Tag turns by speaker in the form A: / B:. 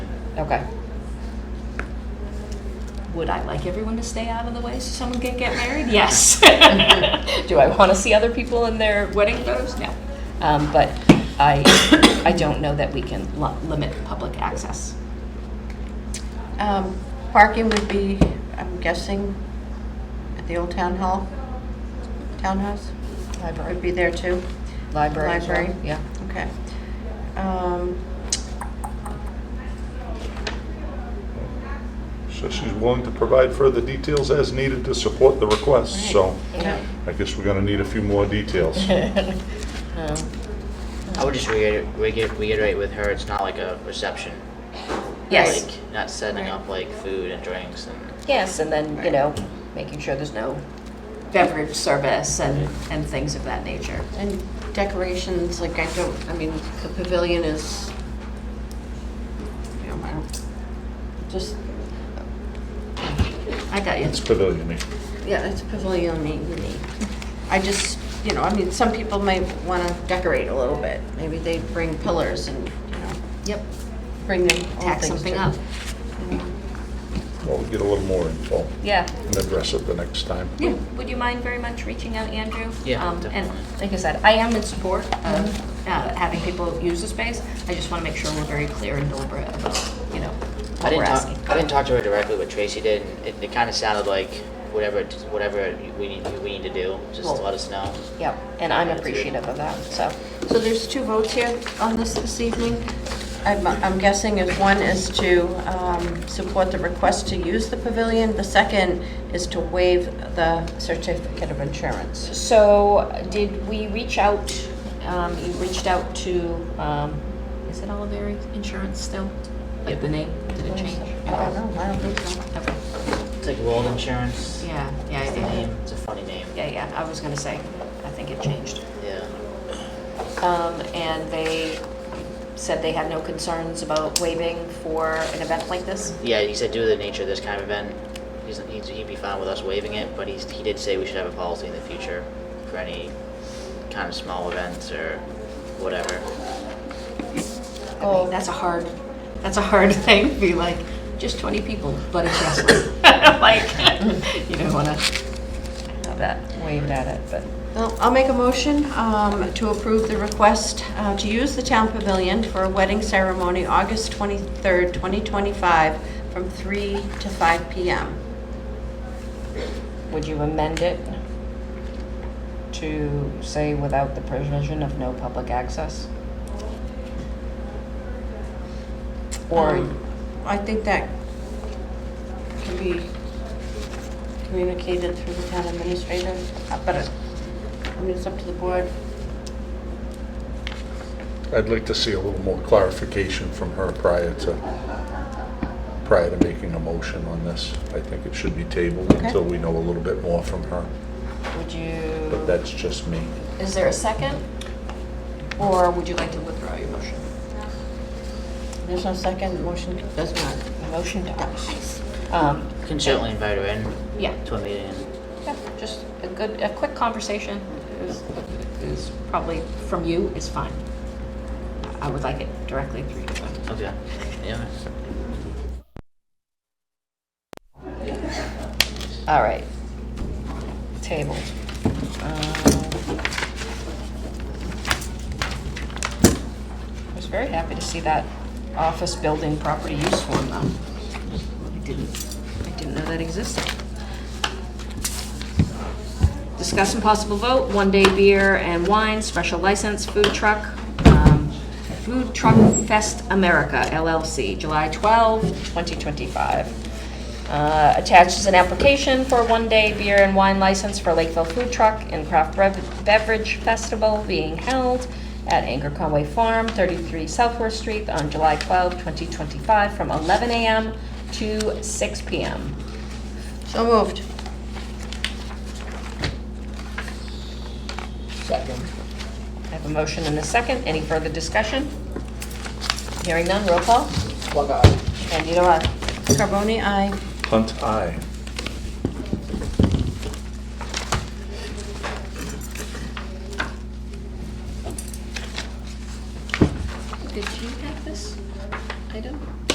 A: Okay. Would I like everyone to stay out of the way so someone can get married? Yes. Do I want to see other people in their wedding photos? No. Um, but I, I don't know that we can lo- limit public access.
B: Um, Parking would be, I'm guessing, at the old town hall, townhouse, would
A: Library.
B: be there too?
A: Library as well,
B: Library.
A: yeah.
B: Okay. Um,
C: So she's willing to provide further details as needed to support the request, so I guess we're gonna need a few more details.
D: I would just reiterate, reiterate with her, it's not like a reception.
A: Yes.
D: Like, not setting up like food and drinks and.
A: Yes, and then, you know, making sure there's no beverage service and, and things of that nature.
B: And decorations, like I don't, I mean, the pavilion is, you know, I don't- just,
A: I got you.
C: It's pavilioning.
B: yeah, it's pavilion unique. I just, you know, I mean, some people might want to decorate a little bit. Maybe they bring pillars and, you know,
A: Yep.
B: bring their own things.
A: Tack something
B: to-
A: up.
C: Well, we get a little more info
A: Yeah.
C: and address it the next time.
A: Yeah. Would you mind very much reaching out, Andrew?
D: Yeah,
A: Um, And
D: definitely. Mm-hmm.
A: like I said, I am in support of uh, having people use the space. I just want to make sure we're very clear and deliberate about, you know,
D: I
A: what we're
D: didn't talk,
A: asking.
D: I didn't talk to her directly, but Tracy did, and it, it kinda sounded like whatever, whatever we need, we need to do, just
A: Well-
D: let us know.
A: Yep, and I'm appreciative of that, so.
B: So there's two votes here on this this evening. I'm I'm guessing is one is to um, support the request to use the pavilion. The second is to waive the certificate of insurance.
A: So did we reach out, um, you reached out to, um, is it Oliveri Insurance still? Like the name, did it change?
B: I don't know, I don't think so.
A: Okay.
D: It's like World Insurance.
A: Yeah, yeah,
D: It's the
A: yeah,
D: name, it's a funny name.
A: yeah, yeah, I was gonna say, I think it changed.
D: Yeah.
A: Um, and they said they had no concerns about waiving for an event like this?
D: Yeah, he said due to the nature of this kind of event, he's, he'd, he'd be fine with us waiving it, but he's, he did say we should have a policy in the future for any kind of small events or whatever.
A: I mean, that's a hard, that's a hard thing, be like, just 20 people, but it's wrestling. Like, you don't wanna have that waved at it, but.
B: Well, I'll make a motion um, to approve the request uh, to use the town pavilion for a wedding ceremony August 23rd, 2025, from 3 to 5 p.m.
A: Would you amend it to say without the provision of no public access? Or,
B: Um, I think that can be communicated through the town administrator, uh, but it- I mean, it's up to the board.
C: I'd like to see a little more clarification from her prior to, prior to making a motion on this. I think it should be tabled
B: Okay.
C: until we know a little bit more from her,
A: would
C: but
A: you,
C: that's just me.
A: is there a second? Or would you like to withdraw your motion?
B: There's no second, motion does not.
A: The motion dies. Um,
D: You Can certainly invite her in
A: Yeah,
D: to a meeting.
A: yeah, just a good, a quick conversation is, is probably from you is fine. I would like it directly through you. but-
D: Okay. Yeah.
A: All right. Tabled. Um, I was very happy to see that office building property use form, though. I didn't, I didn't know that existed. Discuss and possible vote, one-day beer and wine, special license, food truck, um, Food Truck Fest America LLC, July 12, 2025. Uh, Attached is an application for a one-day beer and wine license for Lakeville Food Truck and Craft Brev- Beverage Festival being held at Anchor Conway Farm, 33 Southworth Street, on July 12, 2025, from 11 a.m. to 6 p.m.
B: So moved.
D: Second.
A: I have a motion and a second. Any further discussion? Hearing none, roll call. Candida, aye.
B: Carbone, aye.
C: Hunt, aye.
A: Did you have this item?